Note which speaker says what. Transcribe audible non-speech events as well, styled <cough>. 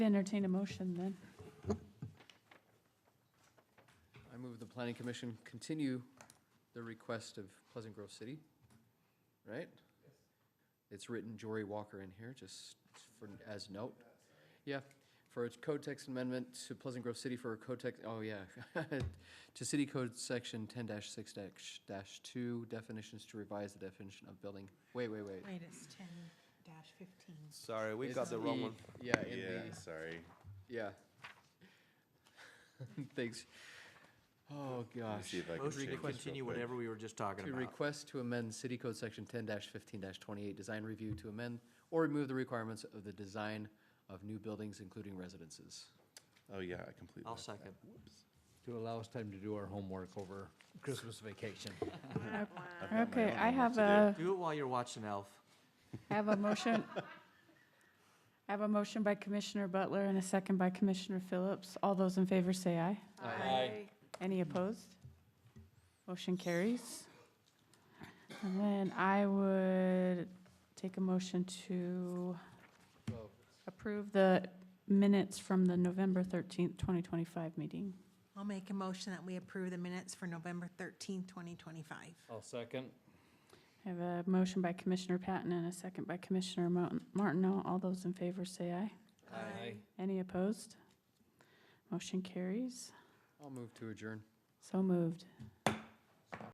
Speaker 1: Entertain a motion then.
Speaker 2: I move the planning commission continue the request of Pleasant Grove City, right? It's written Jory Walker in here, just for, as note. Yeah, for its code text amendment to Pleasant Grove City for a code text, oh yeah. <laughs> To city code section ten six dash, two, definitions to revise the definition of building. Wait, wait, wait.
Speaker 3: Minus ten dash fifteen.
Speaker 4: Sorry, we
Speaker 2: It's
Speaker 4: got the wrong one.
Speaker 2: Yeah, in the-
Speaker 5: Yeah, sorry.
Speaker 2: yeah. <laughs> Thanks. Oh,
Speaker 5: Let me
Speaker 2: gosh.
Speaker 5: see if I can
Speaker 4: Motion to
Speaker 5: shake this
Speaker 4: continue
Speaker 5: real quick.
Speaker 4: whatever we were just talking
Speaker 2: To
Speaker 4: about.
Speaker 2: request to amend City Code Section ten fifteen twenty-eight, design review to amend or remove the requirements of the design of new buildings, including residences.
Speaker 5: Oh, yeah, I completely.
Speaker 4: I'll
Speaker 5: left that.
Speaker 4: second.
Speaker 5: Whoops.
Speaker 6: to allow us time to do our homework over Christmas vacation.
Speaker 5: I've got my
Speaker 1: Okay,
Speaker 5: own
Speaker 1: I
Speaker 5: homework
Speaker 1: have
Speaker 5: to do.
Speaker 1: a,
Speaker 4: Do it while you're watching Elf.
Speaker 1: I have a
Speaker 4: <laughs>
Speaker 1: motion. I have a motion by Commissioner Butler and a second by Commissioner Phillips. All those in favor say aye. Any opposed? Motion carries. And then I would take a motion to approve the minutes from the November 13th, 2025 meeting.
Speaker 3: I'll make a motion that we approve the minutes for November thirteenth, twenty twenty-five.
Speaker 6: I'll second.
Speaker 1: I have a motion by Commissioner Patton and a second by Commissioner Mo- Martineau. All those in favor say aye.
Speaker 4: Aye.
Speaker 1: Any opposed? Motion carries.
Speaker 2: I'll move to adjourn.
Speaker 1: So moved.